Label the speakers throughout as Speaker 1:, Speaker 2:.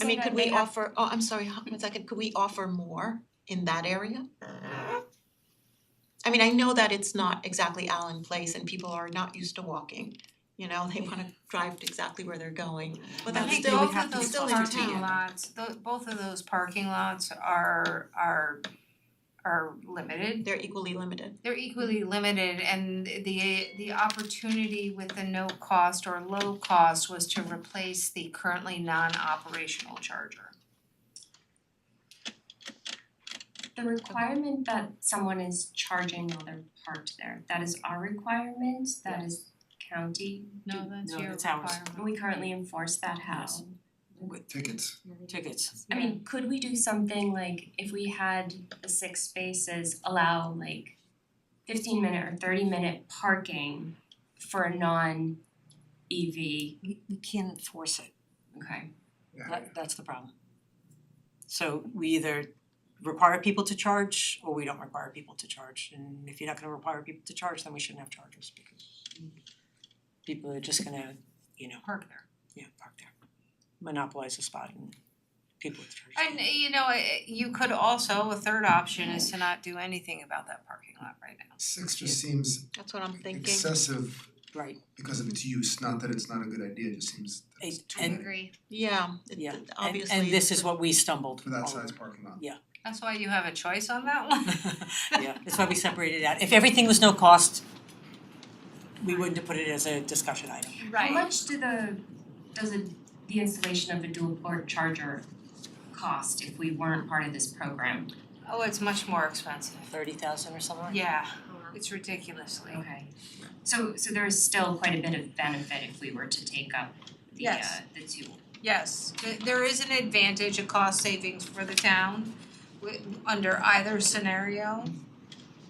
Speaker 1: I mean, could we offer, oh, I'm sorry, h- one second, could we offer more in that area? I mean, I know that it's not exactly Allen Place and people are not used to walking, you know, they wanna drive to exactly where they're going. But
Speaker 2: I
Speaker 1: that's
Speaker 2: think
Speaker 1: still,
Speaker 2: both of
Speaker 1: it's
Speaker 2: those
Speaker 1: still entertaining.
Speaker 2: parking lots, tho- both of those parking lots are are are limited.
Speaker 1: They're equally limited.
Speaker 2: They're equally limited and the the opportunity with the no cost or low cost was to replace the currently non-operational charger.
Speaker 3: The requirement that someone is charging while they're parked there, that is our requirement, that is county.
Speaker 2: No, that's your
Speaker 4: that's ours.
Speaker 3: And we currently enforce that how?
Speaker 4: Yes.
Speaker 5: Tickets.
Speaker 4: tickets.
Speaker 3: I mean, could we do something like if we had the six spaces, allow like fifteen minute or thirty minute parking for a non EV,
Speaker 4: We we can't enforce it,
Speaker 3: okay?
Speaker 4: that that's the problem. So we either require people to charge or we don't require people to charge. And if you're not gonna require people to charge, then we shouldn't have chargers because people are just gonna, you know,
Speaker 2: Park there.
Speaker 4: yeah, park there, monopolize the spot and people with chargers.
Speaker 2: And you know, eh, you could also, a third option is to not do anything about that parking lot right now.
Speaker 5: Six just seems
Speaker 1: That's what I'm thinking.
Speaker 5: excessive
Speaker 4: Right,
Speaker 5: because of its use, not that it's not a good idea, it just seems that it's
Speaker 4: It-
Speaker 5: too
Speaker 4: and-
Speaker 5: many
Speaker 2: Agree.
Speaker 1: Yeah, it-
Speaker 4: Yeah,
Speaker 1: it-
Speaker 4: and
Speaker 1: obviously.
Speaker 4: and this
Speaker 1: it's
Speaker 4: is what we stumbled
Speaker 5: for that
Speaker 4: all
Speaker 5: size
Speaker 4: over.
Speaker 5: parking lot.
Speaker 2: That's why you have a choice on that one.
Speaker 4: Yeah, that's why we separated it out. If everything was no cost, we wouldn't have put it as a discussion item.
Speaker 3: How much do the, does it, the installation of a dual port charger cost if we weren't part of this program?
Speaker 2: Oh, it's much more expensive.
Speaker 4: Thirty thousand or something like that?
Speaker 2: Yeah, it's ridiculously.
Speaker 3: Okay, so so there is still quite a bit of benefit if we were to take up the uh
Speaker 2: Yes.
Speaker 3: the two.
Speaker 2: Yes, th- there is an advantage, a cost savings for the town wi- under either scenario.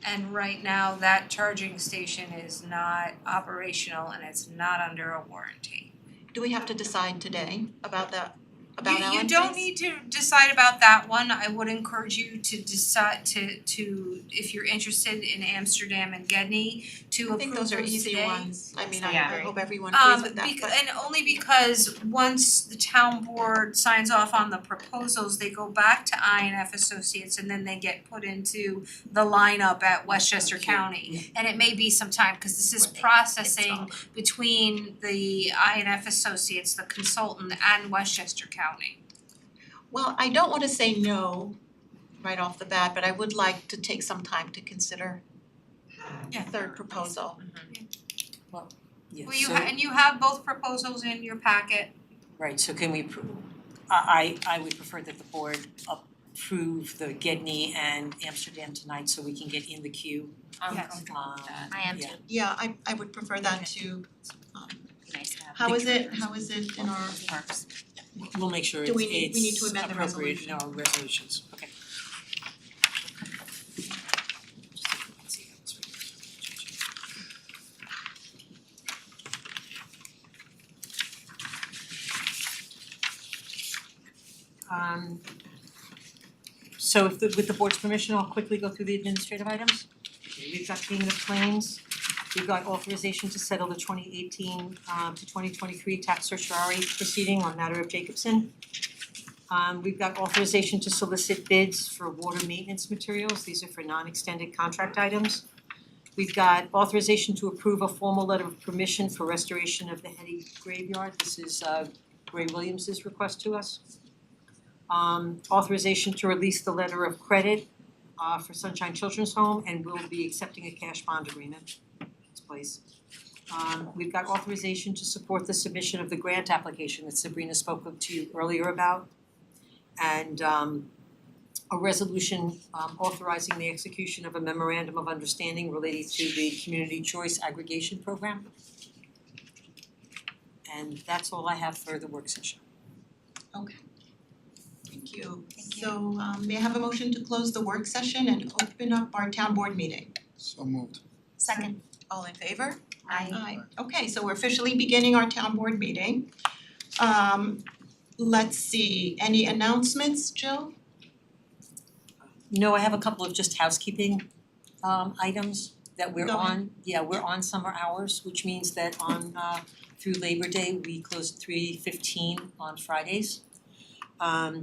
Speaker 2: And right now, that charging station is not operational and it's not under a warranty.
Speaker 1: Do we have to decide today about that,
Speaker 2: You
Speaker 1: about Allen
Speaker 2: you don't
Speaker 1: Place?
Speaker 2: need to decide about that one, I would encourage you to decide to to, if you're interested in Amsterdam and Gedney, to
Speaker 1: I
Speaker 2: approve
Speaker 1: think those are
Speaker 2: those
Speaker 1: easy
Speaker 2: today.
Speaker 1: ones. I mean, I
Speaker 3: Yeah.
Speaker 1: I hope everyone agrees
Speaker 2: Um,
Speaker 1: with that,
Speaker 2: bec-
Speaker 1: but-
Speaker 2: and only because once the town board signs off on the proposals, they go back to INF Associates and then they get put into the lineup at Westchester
Speaker 4: Okay.
Speaker 1: Mm-hmm.
Speaker 2: County. And it may be some time, cause this is
Speaker 3: Right.
Speaker 2: processing between the INF Associates, the consultant and Westchester County.
Speaker 1: Well, I don't wanna say no right off the bat, but I would like to take some time to consider
Speaker 2: Yeah.
Speaker 1: third proposal.
Speaker 4: Yeah,
Speaker 2: Well, you
Speaker 4: so-
Speaker 2: ha- and you have both proposals in your packet.
Speaker 4: Right, so can we, appro- I I I would prefer that the board approve the Gedney and Amsterdam tonight so we can get in the queue.
Speaker 3: I'm
Speaker 2: Yes.
Speaker 3: comfortable with that.
Speaker 6: I am too,
Speaker 4: Yeah.
Speaker 1: Yeah, I I would prefer that to, um,
Speaker 6: nice to have.
Speaker 1: how is it, how is it in our,
Speaker 6: Parks.
Speaker 4: We'll make sure
Speaker 1: Do
Speaker 4: it's
Speaker 1: we need- we need to
Speaker 4: it's
Speaker 1: amend the
Speaker 4: appropriate in our resolutions, okay. Um so if the with the board's permission, I'll quickly go through the administrative items. We've got payment of claims, we've got authorization to settle the twenty eighteen um to twenty twenty three tax certiorari proceeding on matter of Jacobson. Um we've got authorization to solicit bids for water maintenance materials, these are for non-extended contract items. We've got authorization to approve a formal letter of permission for restoration of the Hetty graveyard, this is uh Ray Williams's request to us. Um authorization to release the letter of credit uh for Sunshine Children's Home and we will be accepting a cash bond agreement in its place. Um we've got authorization to support the submission of the grant application that Sabrina spoke of to you earlier about. And um a resolution um authorizing the execution of a memorandum of understanding relating to the community choice aggregation program. And that's all I have for the work session.
Speaker 1: thank you. So um may I have a motion to close the work session and open up our town board meeting?
Speaker 5: So moved.
Speaker 6: Second,
Speaker 1: All in favor?
Speaker 6: I.
Speaker 1: Aye. Okay, so we're officially beginning our town board meeting. Um let's see, any announcements, Jill?
Speaker 4: No, I have a couple of just housekeeping um items that we're
Speaker 1: Go ahead.
Speaker 4: on, yeah, we're on summer hours, which means that on uh through Labor Day, we close at three fifteen on Fridays. um